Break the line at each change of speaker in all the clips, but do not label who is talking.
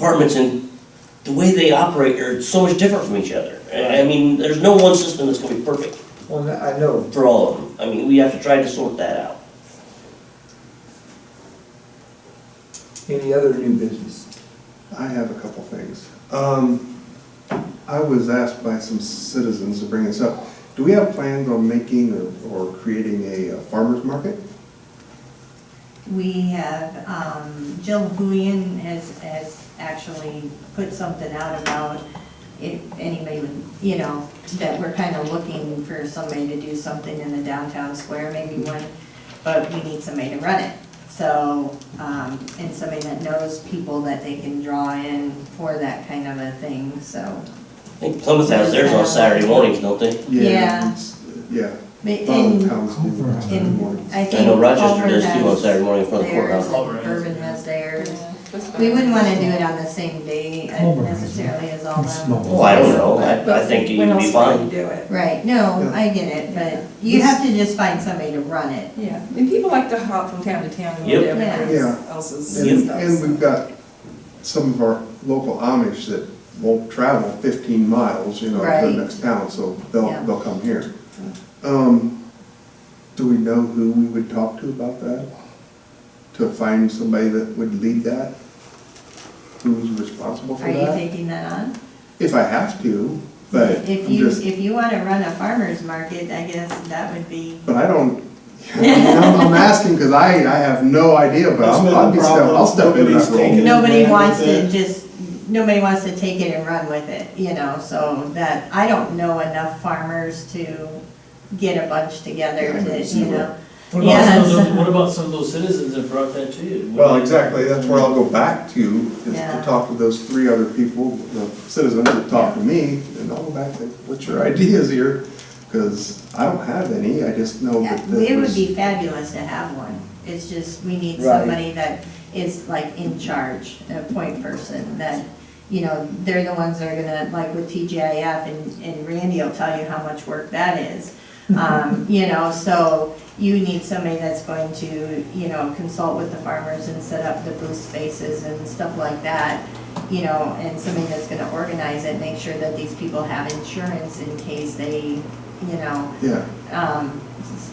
apartments and the way they operate are so much different from each other. I I mean, there's no one system that's gonna be perfect
Well, I know,
for all of them. I mean, we have to try to sort that out.
any other new business?
I have a couple things. Um, I was asked by some citizens to bring this up. Do we have plans on making or, or creating a uh, farmer's market?
We have, um, Jill Bouillon has, has actually put something out about if anybody would, you know, that we're kind of looking for somebody to do something in the downtown square, maybe one, but we need somebody to run it. So, um, and somebody that knows people that they can draw in for that kind of a thing, so.
I think Plymouth has theirs on Saturday mornings, don't they?
Yeah.
it's- Yeah.
But
Father
in,
Pound's doing it Saturday
in,
morning.
I
I
think.
know Rochester
Culver
does too on
has
Saturday morning in front of the
theirs,
courthouse.
Culver has,
Urban
yeah.
has
Yeah,
theirs.
that's fine.
We wouldn't wanna do it on the same day uh,
Culver has
necessarily as all of them.
Well, Oh, I don't know, I, I
But
think it
when
would be
else would
fine.
you do it?
Right, no, I get it, but you have to just find somebody to run it.
Yeah, and people like to hop from town to town and
Yep.
look at everybody
Yeah.
else's
And,
stuff.
and we've got some of our local Amish that won't travel fifteen miles, you know, to
Right.
the next town, so they'll,
Yeah.
they'll come here. Um, do we know who we would talk to about that? To find somebody that would lead that? Who's responsible for
Are you
that?
taking that on?
If I have to, but
If
I'm
you,
just,
if you wanna run a farmer's market, I guess that would be,
but I don't, I'm I'm asking because I, I have no idea, but
That's
I'll,
been
I'll
the
be step, I'll
problem.
step into
Nobody's
that role.
taken-
nobody
run
wants
with
to
it.
just, nobody wants to take it and run with it, you know, so that, I don't know enough farmers to get a bunch together
Yeah, I
to,
don't
you
see
know.
What about some of
Yes.
those, what about some of those citizens that brought that to you?
Well, exactly, that's where I'll go back to, is
Yeah.
to talk to those three other people, the citizens that talked to me, and I'll go back to, what's your ideas here? Because I don't have any, I just know
Yeah,
that.
It would
there's-
be fabulous to have one, it's just, we need
Right.
somebody that is like in charge, a point person, that, you know, they're the ones that are gonna, like with TGIF, and, and Randy will tell you how much work that is. Um, you know, so you need somebody that's going to, you know, consult with the farmers and set up the booth spaces and stuff like that. You know, and somebody that's gonna organize it, make sure that these people have insurance in case they, you know,
Yeah,
um,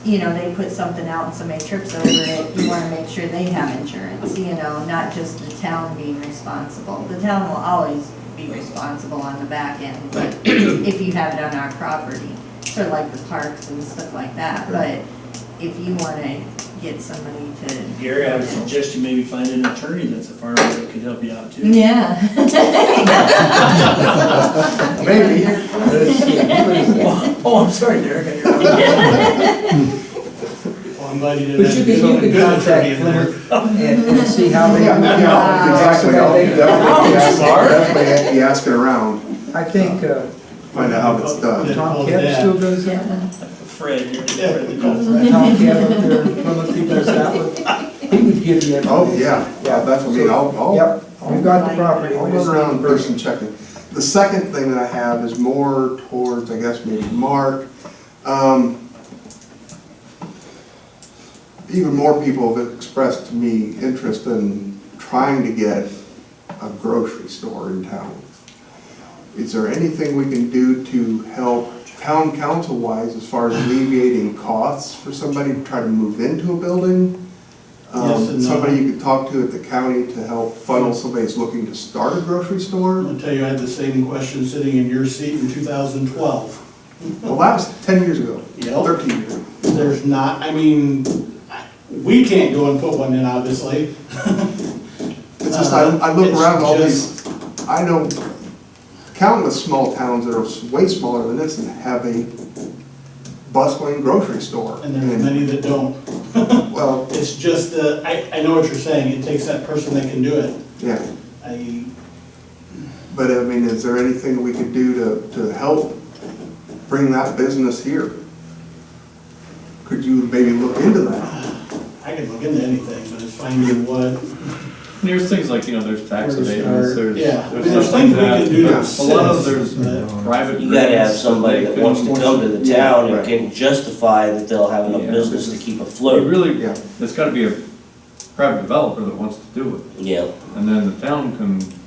you know, they put something out and somebody trips over it, you wanna make sure they have insurance, you know, not just the town being responsible. The town will always be responsible on the back end, but if you have it on our property, sort of like the parks and stuff like that, but if you wanna get somebody to.
Gary, I would suggest you maybe find an attorney that's a farmer that could help you out too.
Yeah.
maybe,
Oh, I'm sorry, Derek.
Well, I'm glad you did
But
that.
you can, you can contact Plymouth and, and see how they.
yeah,
Uh,
yeah, exactly, I'll definitely,
Oh,
sorry.
definitely be asking around,
I think, uh,
find out how it's done.
Tom Kemp still goes out,
Fred, you're,
Yeah.
Fred, the golfer.
Tom Kemp up there, in Plymouth, he does that one, he would give you information.
Oh, yeah, yeah, that's what I mean, I'll, I'll.
Yep, we've got the property,
I'll
we
run
just
around
need
in
the person.
person checking. The second thing that I have is more towards, I guess, maybe Mark. Um, Even more people have expressed to me interest in trying to get a grocery store in town. Is there anything we can do to help town council-wise as far as alleviating costs for somebody to try to move into a building? Um,
Yes and no.
Somebody you could talk to at the county to help funnel somebody who's looking to start a grocery
I'm
store?
gonna tell you, I had the same question sitting in your seat in two thousand twelve.
Well, that was ten years ago,
Yep.
thirteen years.
There's not, I mean, we can't go and put one in, obviously.
It's just, I, I look
Uh-huh. It's
around all
just-
these, I know countless small towns that are way smaller than this and have a bustling grocery store.
And there's many that don't.
Well,
It's just the, I, I know what you're saying, it takes that person that can do it.
yeah.
I,
But I mean, is there anything we could do to, to help bring that business here? Could you maybe look into that?
I could look into anything, but it's finding what,
There's things like, you know, there's tax
Where's our-
abatements, there's.
yeah. There's things we can do to
A lot of
assist,
there's
but-
private.
You gotta have
grants
somebody
they
that
can
wants to
force
come to
it.
the town and
Right.
can justify that they'll have enough
Yeah.
business to keep
You
afloat.
really,
Yeah.
it's gotta be a private developer that wants to do it,
Yeah,
and then the town can